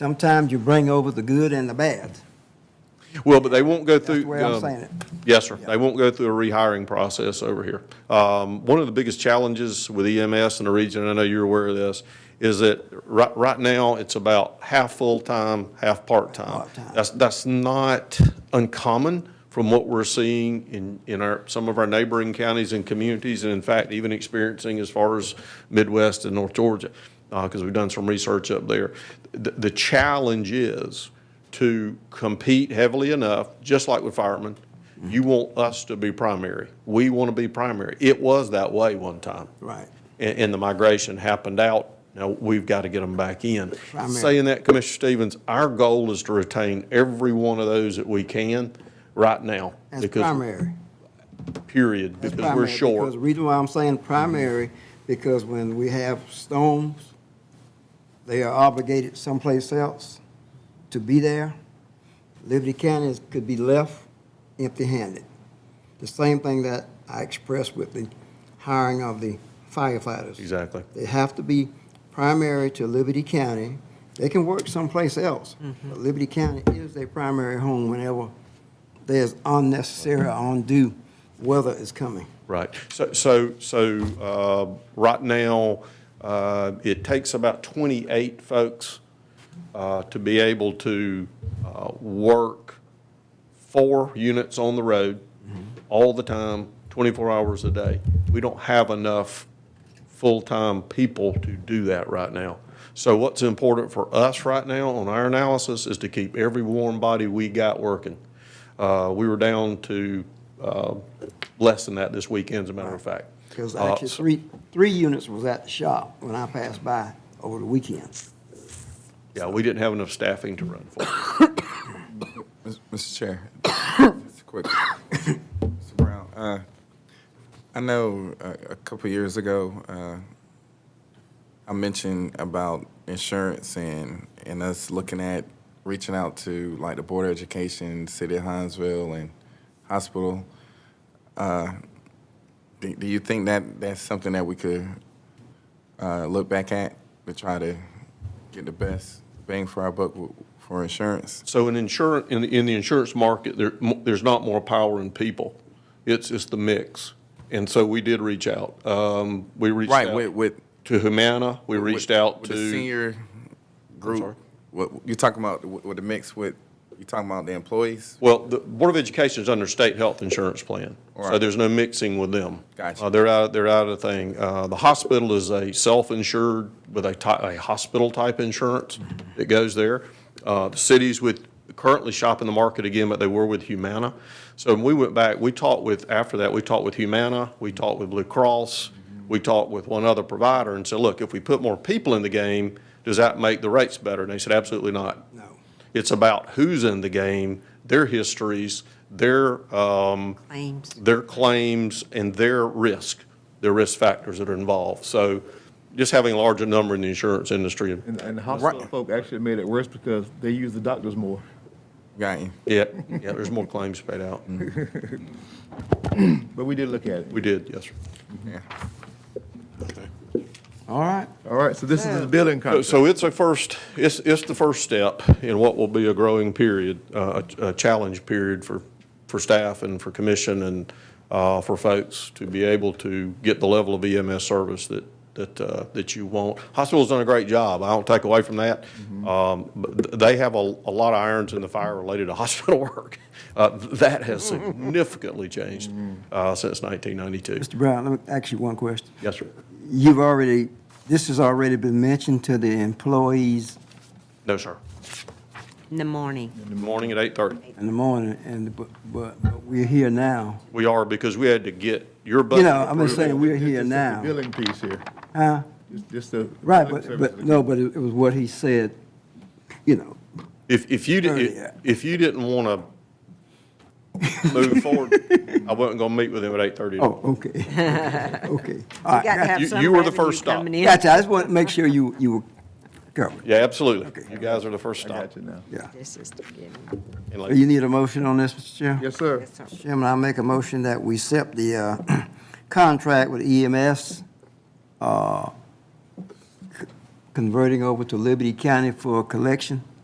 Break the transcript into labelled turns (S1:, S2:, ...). S1: Sometimes you bring over the good and the bad.
S2: Well, but they won't go through.
S1: the way I'm
S2: um,
S1: saying it.
S2: Yes, sir. They won't go through a rehiring process over here. Um, One of the biggest challenges with EMS in the region, I know you're aware of this, is that right, right now, it's about half full-time, half part-time.
S1: Part-time.
S2: That's, that's not uncommon from what we're seeing in, in our, some of our neighboring counties and communities, and in fact, even experiencing as far as Midwest and North Georgia, because we've done some research up there. The, the challenge is, to compete heavily enough, just like with firemen, you want us to be primary. We want to be primary. It was that way one time.
S1: Right.
S2: And, and the migration happened out. Now, we've got to get them back in.
S1: Primary.
S2: Saying that, Commissioner Stevens, our goal is to retain every one of those that we can right now.
S1: That's
S2: because
S1: primary.
S2: Period,
S1: That's
S2: because we're
S1: primary,
S2: short.
S1: Because the reason why I'm saying primary, because when we have storms, they are obligated someplace else to be there. Liberty County is- could be left empty-handed. The same thing that I expressed with the hiring of the firefighters.
S2: Exactly.
S1: They have to be primary to Liberty County. They can work someplace else, but Liberty County is their primary home whenever there's unnecessary or undue weather is coming.
S2: Right. So, so, so, uh, right now, uh, it takes about twenty-eight folks, uh, to be able to, uh, work four units on the road all the time, twenty-four hours a day. We don't have enough full-time people to do that right now. So what's important for us right now on our analysis is to keep every warm body we got working. Uh, we were down to, uh, less than that this weekend, as a matter of fact.
S1: Because
S2: Uh,
S1: actually, three, three units was at the shop when I passed by over the weekend.
S2: Yeah, we didn't have enough staffing to run for.
S3: Mis- Mr. Chair, just quick, Mr. Brown, uh, I know uh, a couple years ago, uh, I mentioned about insurance and, and us looking at reaching out to like the Board of Education, City of Hinesville, and hospital. Uh, do, do you think that that's something that we could uh, look back at to try to get the best bang for our buck w- for insurance?
S2: So in insurance, in, the- in the insurance market, there, mo- there's not more power in people. It's, it's the mix. And so we did reach out. Um, we reached
S3: Right, with,
S2: out
S3: with.
S2: to Humana. We
S3: with-
S2: reached out
S3: with
S2: to.
S3: The senior
S2: sorry?
S3: group, what, you're talking about, with with the mix with, you're talking about the employees?
S2: Well, the Board of Education is under state health insurance plan,
S3: All
S2: so
S3: right.
S2: there's no mixing with them.
S3: Gotcha.
S2: Uh, They're out, they're out of the thing. Uh, The hospital is a self-insured with a ty, a hospital-type insurance
S3: Mm-hmm.
S2: that goes there. Uh, The cities with, currently shopping the market again, but they were with Humana. So when we went back, we talked with, after that, we talked with Humana, we talked with Blue Cross,
S3: Mm-hmm.
S2: we talked with one other provider and said, look, if we put more people in the game, does that make the rates better? And they said, absolutely not.
S1: No.
S2: It's about who's in the game, their histories, their, um,
S4: Claims.
S2: their claims and their risk, their risk factors that are involved. So just having a larger number in the insurance industry,
S5: And, and the hospital folk actually made it worse because they use the doctors more.
S3: Got you.
S2: yeah, yeah, there's more claims paid out.
S5: But we did look at it.
S2: We did, yes, sir.
S1: All right.
S5: All right, so this is the building
S2: So-
S5: contract.
S2: So it's a first, it's, it's the first step in what will be a growing period, uh, a a challenge period for, for staff and for commission and uh, for folks to be able to get the level of EMS service that, that, uh, that you want. Hospital's done a great job, I don't take away from that. Um, But th- they have a, a lot of irons in the fire related to hospital work. Uh, That has significantly changed uh, since 1992.
S1: Mr. Brown, let me ask you one question.
S2: Yes, sir.
S1: You've already, this has already been mentioned to the employees
S2: No, sir.
S4: In the morning.
S2: Good morning at 8:30.
S1: in the morning, and, but, but but we're here now.
S2: We are, because we had to get your budget.
S1: You know, I'm just
S2: approved.
S1: saying, we're here
S5: Just the
S1: now.
S5: Billing piece here.
S1: Huh?
S5: Just- Just the.
S1: Right,
S5: billing
S1: but,
S5: services.
S1: but, no, but it it was what he said, you know,
S2: If, if you,
S1: Earlier.
S2: didn't, if you didn't want to move forward, I wasn't going to meet with him at 8:30.
S1: oh, okay, okay. All
S4: We
S1: right,
S4: got to have
S2: You-
S4: some
S2: you were the
S4: revenue
S2: first stop.
S4: coming in.
S1: Gotcha, I just want to make sure you, you were covered,
S2: Yeah, absolutely. You guys are the first
S5: I
S2: stop.
S5: got you now.
S1: yeah.
S4: This is the beginning.
S2: And
S1: You
S2: like-
S1: need a motion on this, Mr. Chair?
S5: Yes, sir.
S4: That's all.
S1: Chairman, I make a motion that we accept the E uh, contract with EMS uh, c- converting over to Liberty County for collection?